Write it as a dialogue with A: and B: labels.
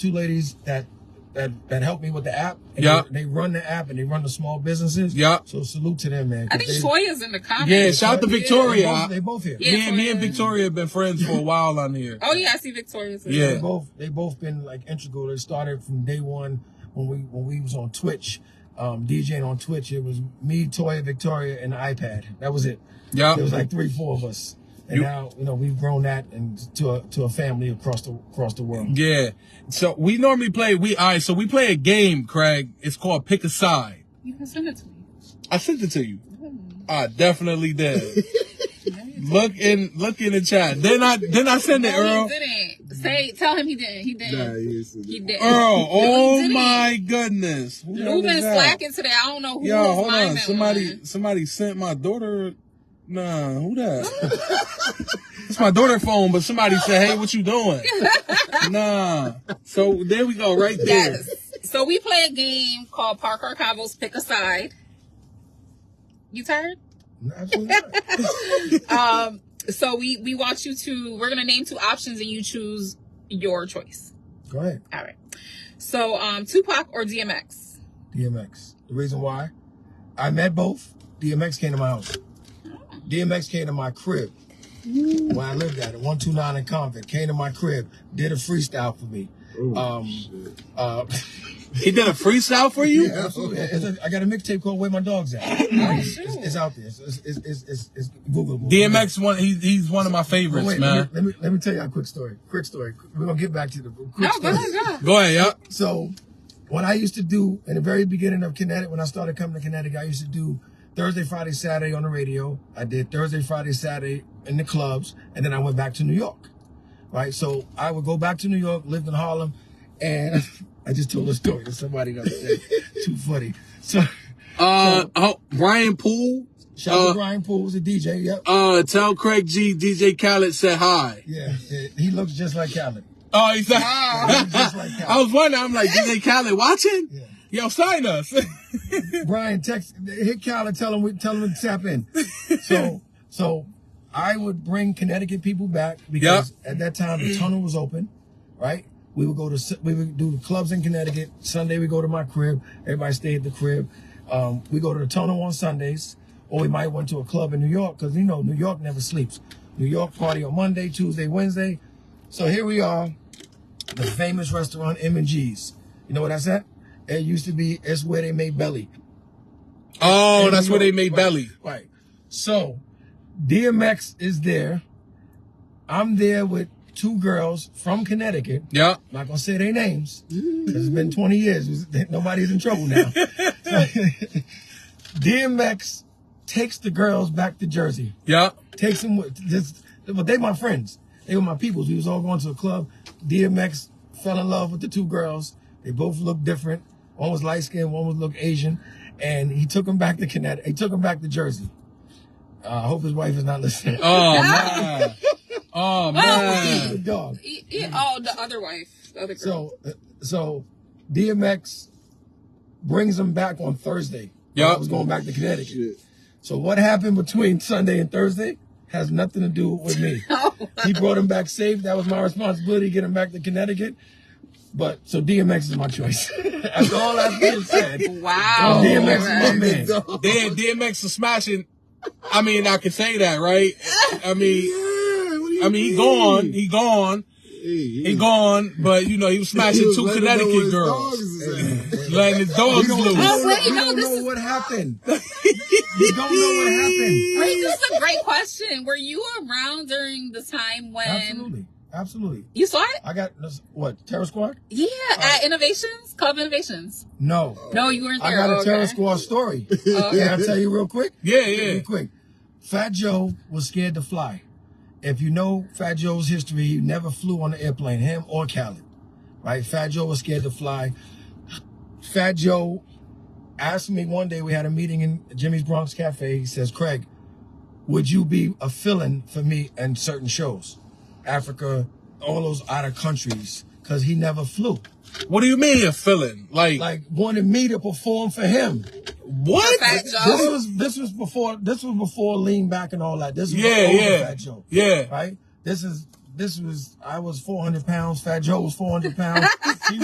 A: two ladies that that that helped me with the app. And
B: Yup.
A: They, they run the app and they run the small businesses.
B: Yup.
A: So salute to them, man.
C: I think
A: They-
C: Toya's in the comments.
B: Yeah, shout out to Victoria.
A: They both, they both here.
C: Yeah.
B: me, and, me and Victoria have been friends for a while on here.
C: Oh yeah, I see Victoria's. in
B: Yeah.
C: there.
A: They both they both been like integral. They started from day one when we when we was on Twitch, um, DJing on Twitch. It was me, Toya, Victoria, and the iPad. That was it.
B: Yup.
A: It was like three, four of us. And
B: You-
A: now you know we've grown that and to a, to a family across the across the world.
B: Yeah. So we normally play we all right, so we play a game, Craig. It's called Pick a Side.
C: You can send it to me.
B: I sent it to you.
C: Mm-hmm.
B: I definitely did. look in look in the chat. Then I then I send it,
C: No,
B: Earl.
C: he didn't. Say, tell him he didn't. He didn't.
D: Nah, he is-
C: He didn't.
B: Earl,
C: he
B: oh
C: didn't.
B: my goodness. Who
C: Who
B: was
C: been
B: that?
C: slacking today? I don't know who
B: Yo,
C: was
B: hold
C: lying
B: on.
C: that
B: Somebody
C: one.
B: somebody sent my daughter Nah, who that? it's my daughter phone, but somebody said, Hey, what you doing? nah. So there we go, right there.
C: Yes. So we play a game called Park Our Convos Pick a Side. You tired?
A: Absolutely not.
C: Um, so we we want you to. We're gonna name two options, and you choose your choice.
A: Go ahead,
C: All right. So um, Tupac or DMX.
A: DMX. The reason why I met both. DMX came to my house. DMX came to my crib
C: Mm.
A: when I lived at it. One two nine in convent came to my crib, did a freestyle for me.
D: Ooh,
A: Um,
D: shit.
A: Uh,
B: He did a freestyle for you?
A: absolutely. It's a- I got a mixtape called "Where My Dogs At." it's,
C: shoot.
A: it's out there. It's it's it's it's, it's Googleable.
B: DMX one he, he's one of my favorites,
A: Wait,
B: man.
A: Let, me, let me let me tell you a quick story. Quick story. We're gonna get back to the quick
C: No, go
A: story.
C: ahead, go ahead.
B: Go ahead, yeah.
A: So, what I used to do in the very beginning of Connecticut, when I started coming to Connecticut, I used to do Thursday, Friday, Saturday on the radio. I did Thursday, Friday, Saturday in the clubs, and then I went back to New York. Right, so I would go back to New York, lived in Harlem, and I just told a story to somebody the other day. Too funny. So,
B: Uh, oh, Brian Poole.
A: shout out
B: Uh,
A: to Brian Poole, was a DJ. Yep.
B: Uh, tell Craig G, DJ Khaled said hi.
A: yeah, yeah, he looks just like Khaled.
B: Oh, he said.
A: He looks just like Khaled.
B: I was wondering. I'm like, DJ Khaled watching?
A: Yeah.
B: Yo, sign us.
A: Brian, text hit Cal and tell him we tell him to tap in. So so I would bring Connecticut people back because at that time the tunnel was open, right? We would go to s- we would do the clubs in Connecticut. Sunday we go to my crib. Everybody stay at the crib. Um, we go to the tunnel on Sundays, or we might went to a club in New York because you know New York never sleeps. New York party on Monday, Tuesday, Wednesday. So here we are the famous restaurant M and G's. You know what I said? It used to be it's where they made belly.
B: oh,
A: In
B: that's
A: New
B: where they
A: York.
B: made
A: Right,
B: Belly.
A: Right. So DMX is there. I'm there with two girls from Connecticut.
B: Yeah.
A: I'm not gonna say their names. 'cause It's been 20 years. Nobody's in trouble now. DMX takes the girls back to Jersey
B: Yeah.
A: takes them with this but they my friends. They were my peoples. We was all going to a club. DMX fell in love with the two girls. They both looked different. One was light skinned, one was looked Asian. And he took them back to Connecticut. He took them back to Jersey. Uh, I hope his wife is not listening.
B: Oh man. Oh
A: The
B: man.
A: dog.
C: E- e- oh, the other wife, the other girl.
A: So, uh, so DMX brings them back on Thursday.
B: Yeah.
A: I was going back to Connecticut.
D: Shit.
A: So what happened between Sunday and Thursday has nothing to do with me.
C: Oh,
A: he brought him back safe. That was my responsibility, get him back to Connecticut. But so DMX is my choice. Oh, That's all that's being said.
C: wow.
A: DMX is my man.
C: Alright.
B: Damn, DMX is smashing. I mean, I can say that, right? I mean,
D: Yeah, what do you
B: I mean, he
D: mean?
B: gone. He gone.
D: Hey,
B: He gone. But you know, he was smashing
D: was
B: two
D: letting them know where
B: Connecticut
D: his
B: girls.
D: dogs is at.
B: letting his dogs loose.
C: Oh, wait,
A: you
C: no,
A: don't
C: this
A: know
C: is-
A: what happened. you don't know what happened.
C: Wait, this is a great question. Were you around during the time
A: Um,
C: when
A: Absolutely. Absolutely.
C: you saw it?
A: I got this- what? Terror Squad?
C: Yeah, at Innovations Club Innovations.
A: No.
C: No, you weren't
A: Uh, I
C: there.
A: got
C: Oh,
A: a Terror
C: okay.
A: Squad story.
C: Oh,
A: Can
C: okay.
A: I tell you real quick?
B: Yeah,
A: Real
B: yeah.
A: quick. Fat Joe was scared to fly. If you know Fat Joe's history, he never flew on an airplane, him or Khaled. Right? Fat Joe was scared to fly. Fat Joe asked me one day, we had a meeting in Jimmy's Bronx Cafe. He says, Craig, would you be a fill-in for me in certain shows? Africa, all those other countries. Cause he never flew.
B: What do you mean a feeling? Like,
A: Like wanted me to perform for him.
B: what?
C: Fat
A: This
B: Uh,
C: Joe.
A: was this was
D: Oh,
A: before this was before lean back and all that. This was
B: Yeah,
A: older
B: yeah.
A: Fat Joe.
B: Yeah.
A: Right? This is this was I was 400 pounds. Fat Joe was 400 pounds. He